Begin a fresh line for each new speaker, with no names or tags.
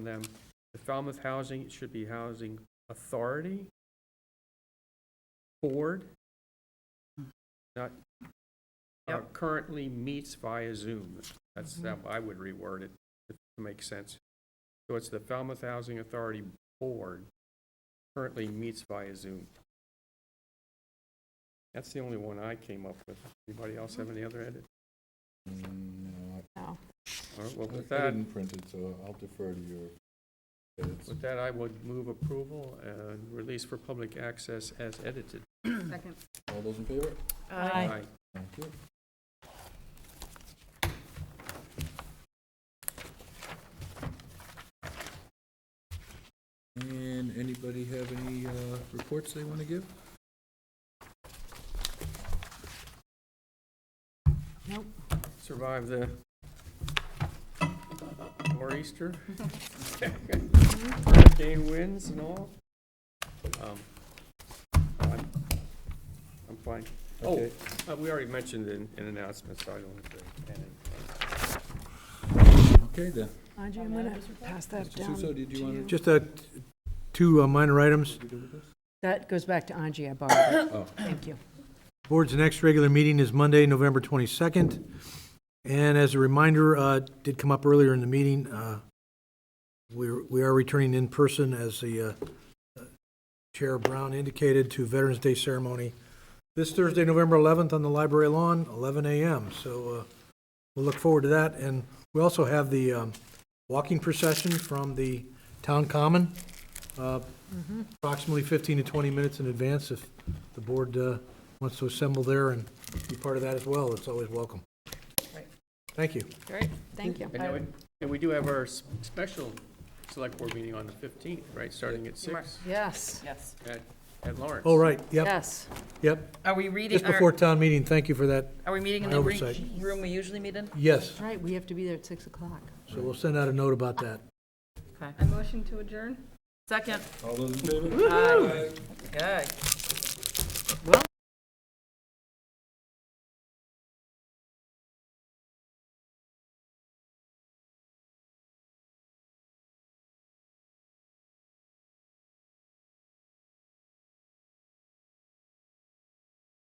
them. The Falmouth Housing, it should be Housing Authority Board, not, uh,
Yep.
currently meets via Zoom. That's, that I would reword it, if it makes sense. So it's the Falmouth Housing Authority Board currently meets via Zoom. That's the only one I came up with. Anybody else have any other edit?
Mm,
No.
All right, well,
No,
with
I- I
that,
didn't print it, so I'll defer to your edits.
with that, I would move approval and release for public access as edited.
Second.
All those in favor?
Aye.
Aye.
Thank you. And anybody have any uh, reports they want to give?
Nope.
Survive the nor'easter. Hurricane winds and all. Um, I'm I'm fine. Oh,
Okay.
uh, we already mentioned in in announcements, so I don't have to add anything.
Okay, then.
Audrey, I'm gonna pass that
Mr. Suso,
down.
did you want to?
Just uh, two uh, minor items.
That goes back to Angie, I borrowed it. Thank you.
Board's next regular meeting is Monday, November 22nd. And as a reminder, uh, did come up earlier in the meeting, uh, we're- we are returning in person, as the uh, Chair Brown indicated, to Veterans Day ceremony this Thursday, November 11th, on the library lawn, 11 a.m. So uh, we'll look forward to that. And we also have the um, walking procession from the town common, uh, approximately 15 to 20 minutes in advance if the board uh, wants to assemble there and be part of that as well. It's always welcome.
Right.
Thank you.
Great, thank you.
And then we- And we do have our s- special select board meeting on the 15th, right, starting at 6
Yes,
Yes.
at at Lawrence.
All Oh, right, yep,
yes.
yep.
Are we reading,
Just
are-
before town meeting, thank you for that.
are we meeting in
my
the
oversight.
re- room we usually meet in?
Yes,
Right, we have to be there at 6 o'clock.
so we'll send out a note about that.
Okay. Second.
All those in favor?
Good.